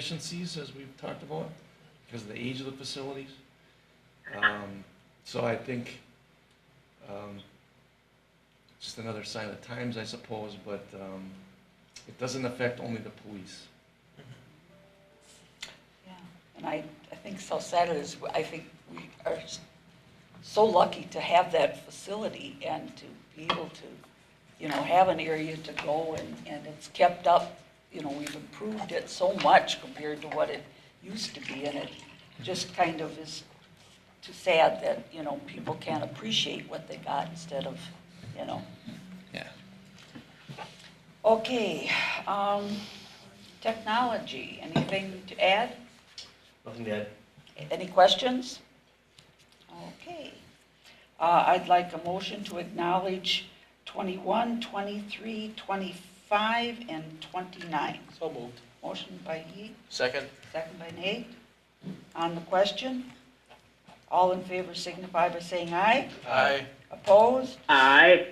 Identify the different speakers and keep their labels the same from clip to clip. Speaker 1: efficiencies, as we've talked about, because of the age of the facilities. Um, So I think, um, just another sign of the times, I suppose, but um, it doesn't affect only the police.
Speaker 2: Yeah, And I, I think South Saturday is, I think we are s- so lucky to have that facility and to be able to, you know, have an area to go and, and it's kept up. You know, we've improved it so much compared to what it used to be and it just kind of is too sad that, you know, people can't appreciate what they got instead of, you know.
Speaker 1: Yeah.
Speaker 2: Okay, um, technology, anything to add?
Speaker 3: Nothing to add.
Speaker 2: Any questions? Okay. Uh, I'd like a motion to acknowledge 21, 23, 25, and 29.
Speaker 4: So moved.
Speaker 2: Motion by Heath,
Speaker 4: Second?
Speaker 2: second by Nate. On the question, all in favor signify by saying aye.
Speaker 4: Aye.
Speaker 2: Opposed?
Speaker 5: Aye.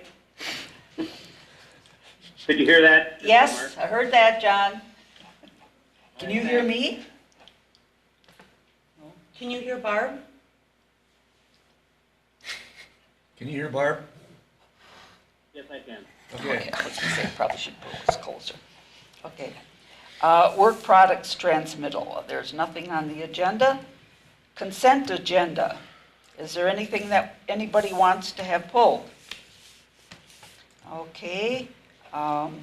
Speaker 5: Did you hear that?
Speaker 2: Yes, I heard that, John. Can you hear me?
Speaker 6: Can you hear Barb?
Speaker 1: Can you hear Barb?
Speaker 5: Yes, I can.
Speaker 1: Okay.
Speaker 2: I was gonna say, probably should put this closer. Okay. Uh, Work products transmittal, there's nothing on the agenda. Consent agenda, is there anything that anybody wants to have pulled? Okay, um,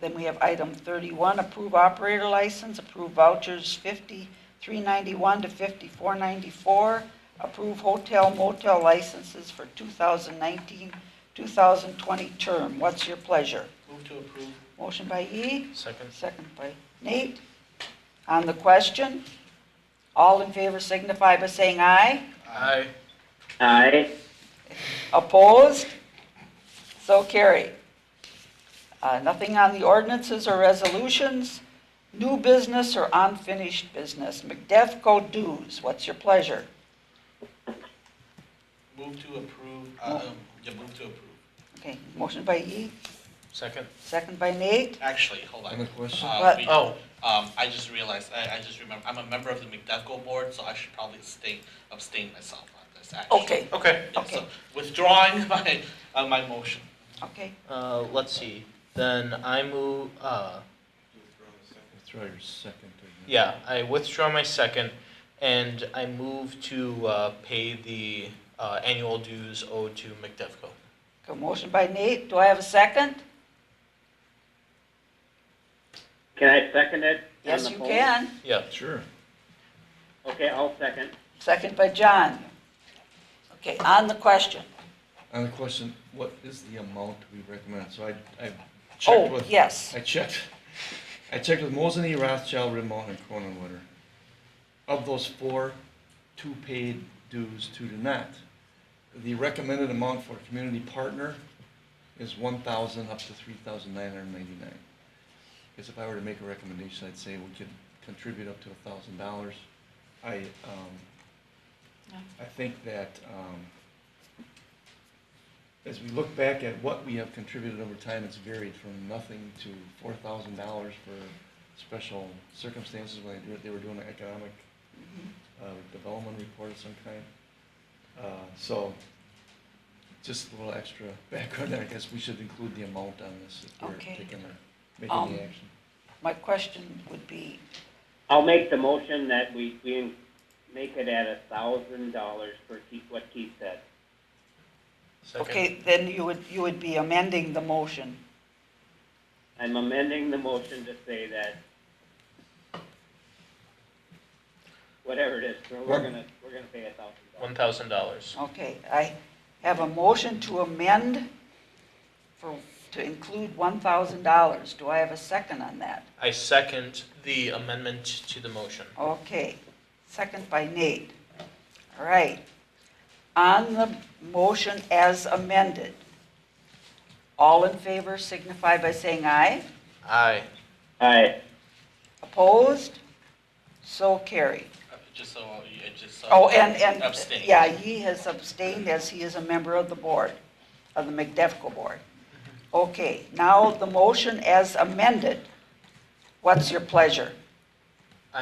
Speaker 2: then we have item 31, approve operator license, approve vouchers 5391 to 5494, approve hotel motel licenses for 2019, 2020 term. What's your pleasure?
Speaker 4: Move to approve.
Speaker 2: Motion by E,
Speaker 4: Second?
Speaker 2: second by Nate. On the question, all in favor signify by saying aye.
Speaker 4: Aye.
Speaker 5: Aye.
Speaker 2: Opposed? So carried. Uh, Nothing on the ordinances or resolutions, new business or unfinished business. McDevco dues, what's your pleasure?
Speaker 4: Move to approve, uh, um, yeah, move to approve.
Speaker 2: Okay, motion by E,
Speaker 4: Second?
Speaker 2: second by Nate.
Speaker 7: Actually, hold on.
Speaker 1: Any question?
Speaker 7: Uh,
Speaker 2: What?
Speaker 7: we-
Speaker 4: Oh,
Speaker 7: Um, I just realized, I, I just remember, I'm a member of the McDevco board, so I should probably abstain, abstain myself on this, actually.
Speaker 2: Okay,
Speaker 4: okay.
Speaker 7: Yeah, so
Speaker 2: okay.
Speaker 7: Withdrawing my, uh, my motion.
Speaker 2: okay.
Speaker 3: Uh, let's see, then I move, uh,
Speaker 1: Throw your second. to-
Speaker 3: yeah, I withdraw my second, and I move to, uh, pay the, uh, annual dues owed to McDevco.
Speaker 2: Okay, motion by Nate, do I have a second?
Speaker 5: Can I second it? on
Speaker 2: Yes,
Speaker 5: the
Speaker 2: you
Speaker 5: phone?
Speaker 2: can.
Speaker 3: Yeah,
Speaker 1: Sure.
Speaker 5: Okay, I'll second.
Speaker 2: Second by John. Okay, on the question.
Speaker 1: On the question, what is the amount we recommend? So I, I checked
Speaker 2: Oh,
Speaker 1: with,
Speaker 2: yes.
Speaker 1: I checked, I checked with Mosinee, Rothschild, Rim Mountain, and Croninwood. Of those four, two paid dues, two did not. The recommended amount for a community partner is one thousand up to three thousand nine hundred ninety-nine. Because if I were to make a recommendation, I'd say we could contribute up to a thousand dollars. I, um,
Speaker 2: Yeah.
Speaker 1: I think that, um, as we look back at what we have contributed over time, it's varied from nothing to four thousand dollars for special circumstances when they do- they were doing an economic
Speaker 2: Mm-hmm.
Speaker 1: uh, development report of some kind. Uh, So, just a little extra background, I guess we should include the amount on this if we're
Speaker 2: Okay.
Speaker 1: taking, the-
Speaker 2: Um,
Speaker 1: making the action.
Speaker 2: My question would be,
Speaker 5: I'll make the motion that we, we make it at a thousand dollars for Keith, what Keith said.
Speaker 3: second.
Speaker 2: okay, then you would, you would be amending the motion.
Speaker 5: I'm amending the motion to say that whatever it is, we're we're gonna, we're gonna pay a thousand dollars.
Speaker 3: One thousand dollars.
Speaker 2: Okay, I have a motion to amend for, to include one thousand dollars. Do I have a second on that?
Speaker 3: I second the amendment to the motion.
Speaker 2: Okay, second by Nate. All right. On the motion as amended, all in favor signify by saying aye.
Speaker 3: Aye.
Speaker 5: Aye.
Speaker 2: Opposed? So carried.
Speaker 7: Uh, Just so, uh, just so.
Speaker 2: Oh, and, and,
Speaker 7: Abstain.
Speaker 2: yeah, he has abstained as he is a member of the board, of the McDevco board. Okay, now the motion as amended. What's your pleasure?